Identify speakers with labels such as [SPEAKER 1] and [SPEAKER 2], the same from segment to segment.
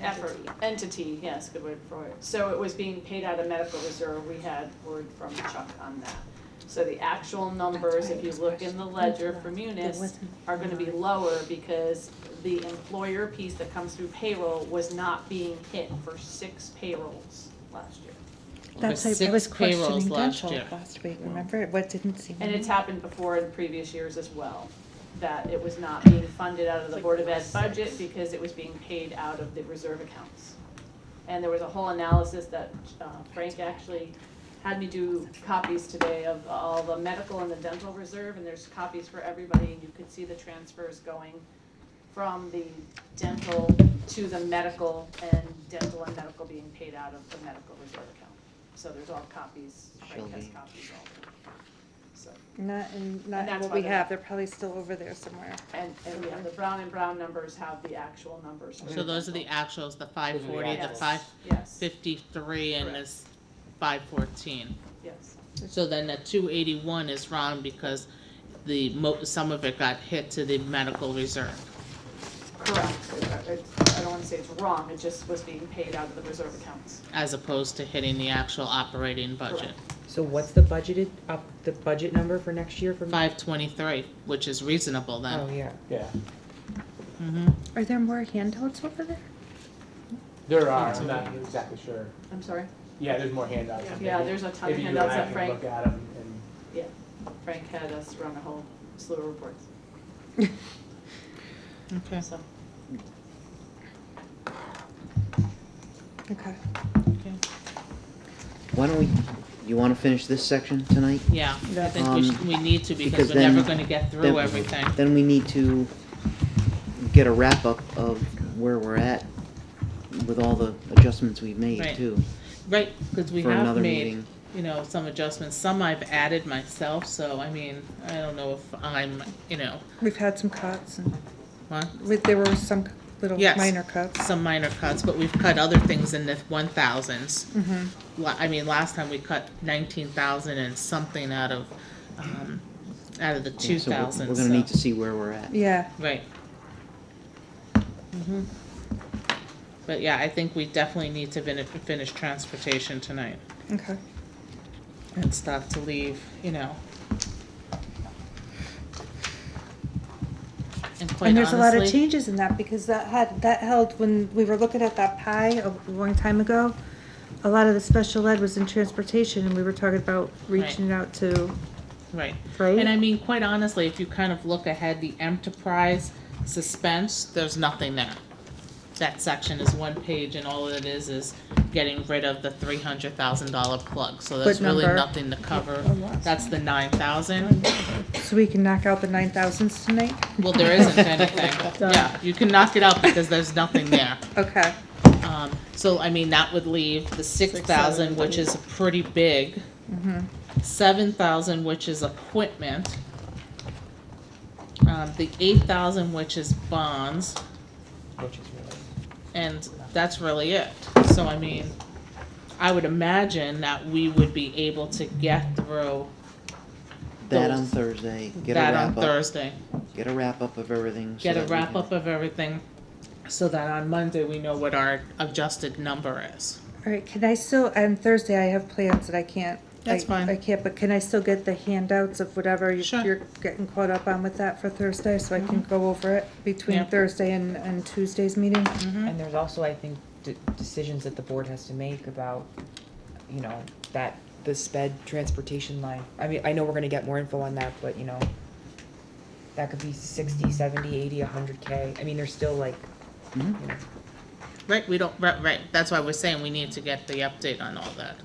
[SPEAKER 1] effort,
[SPEAKER 2] Entity.
[SPEAKER 1] entity, yes, good word for it. So it was being paid out of medical reserve, we had word from Chuck on that. So the actual numbers, if you look in the ledger for Munis, are gonna be lower because the employer piece that comes through payroll was not being hit for six payrolls last year.
[SPEAKER 3] That's, I was questioning dental last week, remember? What didn't seem.
[SPEAKER 1] And it's happened before in previous years as well, that it was not being funded out of the Board of Ed budget because it was being paid out of the reserve accounts. And there was a whole analysis that uh, Frank actually had me do copies today of all the medical and the dental reserve, and there's copies for everybody, and you could see the transfers going from the dental to the medical, and dental and medical being paid out of the medical reserve account. So there's all copies, Frank has
[SPEAKER 4] Shelby.
[SPEAKER 1] copies all, so.
[SPEAKER 3] Not, in not in
[SPEAKER 1] that's
[SPEAKER 3] what
[SPEAKER 1] why
[SPEAKER 3] we
[SPEAKER 1] they're-
[SPEAKER 3] have, they're probably still over there somewhere.
[SPEAKER 1] And, and yeah, the brown and brown numbers have the actual numbers.
[SPEAKER 4] So those are the actuals, the five forty, the
[SPEAKER 1] Yes,
[SPEAKER 4] five
[SPEAKER 1] Yes,
[SPEAKER 4] fifty-three, and
[SPEAKER 1] Correct.
[SPEAKER 4] this five fourteen.
[SPEAKER 1] yes,
[SPEAKER 4] So then the two eighty-one is wrong because the mo, some of it got hit to the medical reserve.
[SPEAKER 1] correct. It's- I don't wanna say it's wrong, it just was being paid out of the reserve accounts.
[SPEAKER 4] as opposed to hitting the actual operating budget.
[SPEAKER 1] Correct.
[SPEAKER 5] So what's the budgeted, up, the budget number for next year for?
[SPEAKER 4] Five twenty-three, which is reasonable
[SPEAKER 5] Oh,
[SPEAKER 4] then.
[SPEAKER 5] yeah.
[SPEAKER 6] Yeah,
[SPEAKER 4] hmm
[SPEAKER 3] Are there more handouts over there?
[SPEAKER 6] there are, I'm not exactly sure.
[SPEAKER 1] I'm sorry?
[SPEAKER 6] Yeah, there's more handouts.
[SPEAKER 1] Yeah, there's a ton of
[SPEAKER 6] Maybe you and I
[SPEAKER 1] handouts that
[SPEAKER 6] can
[SPEAKER 1] Frank,
[SPEAKER 6] Look at them and.
[SPEAKER 1] Frank had us run a whole slew of reports,
[SPEAKER 4] okay.
[SPEAKER 1] so.
[SPEAKER 3] Okay.
[SPEAKER 4] Why
[SPEAKER 7] don't we, you wanna finish this section tonight?
[SPEAKER 4] Yeah, I think we, sh-
[SPEAKER 7] Um,
[SPEAKER 4] we need to because
[SPEAKER 7] because
[SPEAKER 4] we're never
[SPEAKER 7] then-
[SPEAKER 4] gonna get through
[SPEAKER 7] then-
[SPEAKER 4] everything.
[SPEAKER 7] Then we need to get a wrap up of where we're at with all the adjustments we've made
[SPEAKER 4] Right.
[SPEAKER 7] too.
[SPEAKER 4] Right, because we
[SPEAKER 7] for
[SPEAKER 4] have
[SPEAKER 7] another
[SPEAKER 4] made,
[SPEAKER 7] meeting.
[SPEAKER 4] you know, some adjustments. Some I've added myself, so I mean, I don't know if I'm, you know,
[SPEAKER 3] We've had some cuts and,
[SPEAKER 4] huh?
[SPEAKER 3] with- there were some little
[SPEAKER 4] Yes.
[SPEAKER 3] minor cuts.
[SPEAKER 4] some minor cuts, but we've cut other things in the one thousands.
[SPEAKER 3] Mhm.
[SPEAKER 4] la- I mean, last time we cut nineteen thousand and something out of, um, out of the
[SPEAKER 7] Yeah,
[SPEAKER 4] two
[SPEAKER 7] so we're- We're
[SPEAKER 4] thousand,
[SPEAKER 7] gonna
[SPEAKER 4] so,
[SPEAKER 7] need to see where we're at.
[SPEAKER 3] Yeah,
[SPEAKER 4] right. Mhm. But yeah, I think we definitely need to finish, finish transportation tonight
[SPEAKER 3] okay.
[SPEAKER 4] and stuff to leave, you know. And quite
[SPEAKER 3] And there's a lot of
[SPEAKER 4] honestly-
[SPEAKER 3] changes in that because that had, that held, when we were looking at that pie a long time ago, a lot of the special ed was in transportation and we were talking about reaching out to,
[SPEAKER 4] Right.
[SPEAKER 3] right?
[SPEAKER 4] And I mean, quite honestly, if you kind of look ahead, the enterprise suspense, there's nothing there. That section is one page and all it is is getting rid of the three hundred thousand dollar plug, so there's
[SPEAKER 3] Good
[SPEAKER 4] really
[SPEAKER 3] number. Oh,
[SPEAKER 4] nothing to cover. That's the nine thousand.
[SPEAKER 3] So we can knock out the nine thousands tonight?
[SPEAKER 4] Well, there isn't anything.
[SPEAKER 3] Done.
[SPEAKER 4] Yeah, you can knock it out because there's nothing there.
[SPEAKER 3] Okay,
[SPEAKER 4] Um, so I mean, that would leave the six thousand, which is pretty big. Seven thousand, which is equipment. Um, the eight thousand, which is bonds,
[SPEAKER 6] Which is really.
[SPEAKER 4] and that's really it. So I mean, I would imagine that we would be able to get through
[SPEAKER 7] That on
[SPEAKER 4] Those-
[SPEAKER 7] Thursday, get a
[SPEAKER 4] that on
[SPEAKER 7] wrap up,
[SPEAKER 4] Thursday.
[SPEAKER 7] get a wrap up of everything. so
[SPEAKER 4] Get a
[SPEAKER 7] that we
[SPEAKER 4] wrap
[SPEAKER 7] can-
[SPEAKER 4] up of everything, so that on Monday we know what our adjusted number is.
[SPEAKER 3] alright, can I still, on Thursday I have plans that I can't.
[SPEAKER 4] That's
[SPEAKER 3] I-
[SPEAKER 4] fine.
[SPEAKER 3] I can't, but can I still get the handouts of whatever you-
[SPEAKER 4] Sure. Mm-hmm.
[SPEAKER 3] you're getting caught up on with that for Thursday, so I can go over it between
[SPEAKER 4] Yeah.
[SPEAKER 3] Thursday and, and Tuesday's meeting?
[SPEAKER 5] And there's also, I think, de- decisions that the board has to make about, you know, that, the sped transportation line. I mean, I know we're gonna get more info on that, but you know, that could be sixty, seventy, eighty, a hundred K. I mean, there's still like, you
[SPEAKER 7] Mhm.
[SPEAKER 5] know,
[SPEAKER 4] Right, we don't, right, right, that's why we're saying we need to get the update on all that.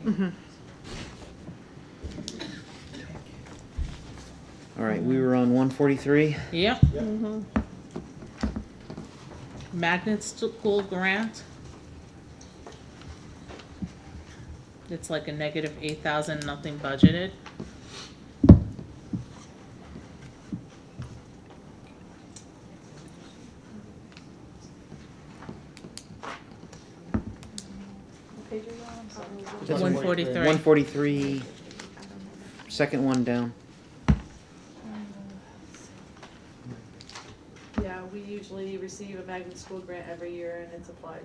[SPEAKER 7] All right, we were on one forty-three.
[SPEAKER 4] Yep. Mm-hmm. Magnet school grant. It's like a negative eight thousand, nothing budgeted.
[SPEAKER 6] That's
[SPEAKER 4] One
[SPEAKER 6] 143.
[SPEAKER 4] forty-three.
[SPEAKER 7] One forty-three, second one down.
[SPEAKER 1] Yeah, we usually receive a magnet school grant every year and it's applied